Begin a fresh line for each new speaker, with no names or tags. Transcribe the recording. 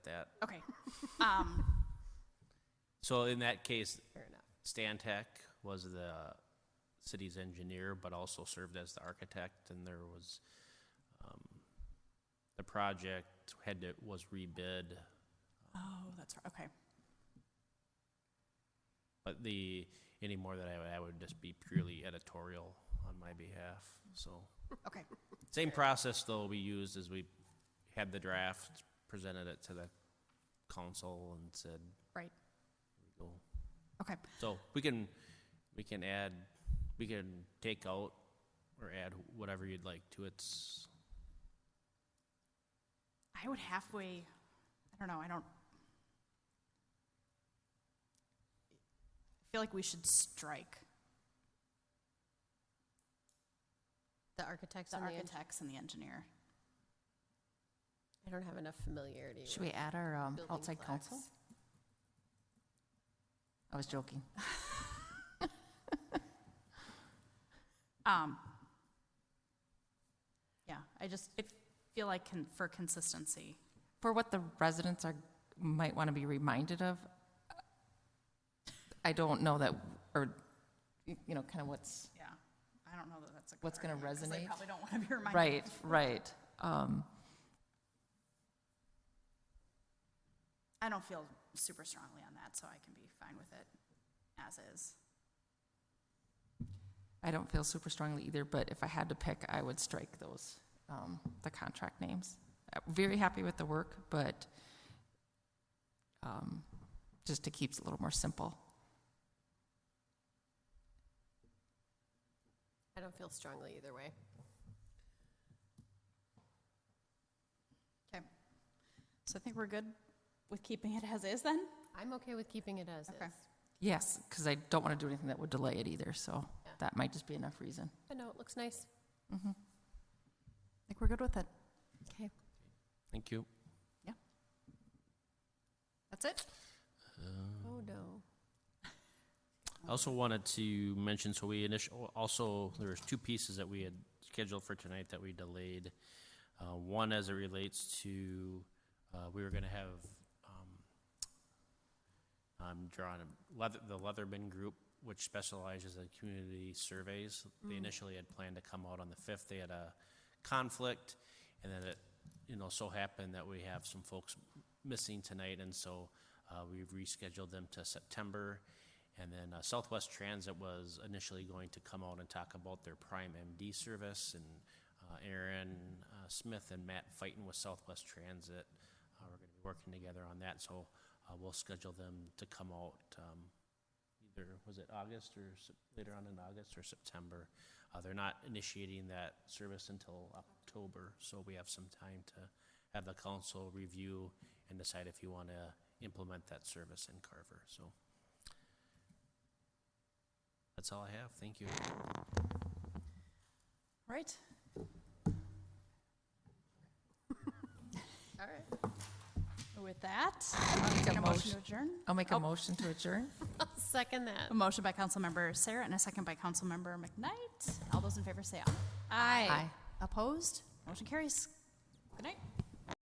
that.
Okay. Um,
So in that case,
Fair enough.
Stan Tech was the city's engineer, but also served as the architect, and there was, um, the project had to, was rebid,
oh, that's right. Okay.
but the, any more that I would, I would just be purely editorial on my behalf, so.
Okay.
Same process, though, we used as we had the draft, presented it to the council and said,
Right.
go.
Okay.
So we can, we can add, we can take out or add whatever you'd like to its,
I would halfway, I don't know, I don't. I feel like we should strike
The architects
the
and the, eng-
architects and the engineer.
I don't have enough familiarity
Should
with
we add our um,
building
outside
plaques.
counsel? I was joking.
Um, yeah, I just I feel like con- for consistency.
For what the residents are, might want to be reminded of, I don't know that, or, you know, kind of what's,
Yeah, I don't know that that's a. good
What's gonna
argument, 'cause They
resonate?
probably don't want to be reminded.
right, right. Um,
I don't feel super strongly on that, so I can be fine with it as is.
I don't feel super strongly either, but if I had to pick, I would strike those, um, the contract names. Uh, Very happy with the work, but um, just to keep it a little more simple.
I don't feel strongly either way.
Okay. So I think we're good with keeping it as is then?
I'm okay with keeping it as
Okay.
is.
Yes, because I don't want to do anything that would delay it either, so
Yeah.
that might just be enough reason. Mm-hmm.
I know, it looks nice.
I think we're good with it.
Okay.
thank you.
That's it?
Oh, no.
I also wanted to mention, so we initial, also, there was two pieces that we had scheduled for tonight that we delayed. Uh, one as it relates to, uh, we were gonna have, um, I'm drawing a, leather, the Leatherman Group, which specializes in community surveys. They initially had planned to come out on the fifth, they had a conflict, and then it, you know, so happened that we have some folks missing tonight, and so, uh, we've rescheduled them to September. And then uh, Southwest Transit was initially going to come out and talk about their Prime MD service, and uh, Aaron uh, Smith and Matt Fighton with Southwest Transit uh, are going to be working together on that, so uh, we'll schedule them to come out um, either, was it August or Sep- later on in August or September? Uh, They're not initiating that service until October, so we have some time to have the council review and decide if you want to implement that service in Carver, so. That's all I have. Thank you.
All right.
All right.
With that,
I'll make
take motion
a
to
motion,
adjourn.
I'll make
Oh.
a motion to adjourn.
I'll second that.
A motion by Councilmember Sarah and a second by Councilmember McKnight. All those in favor say aye.
Aye.
Aye.
Opposed? Motion carries. Good night.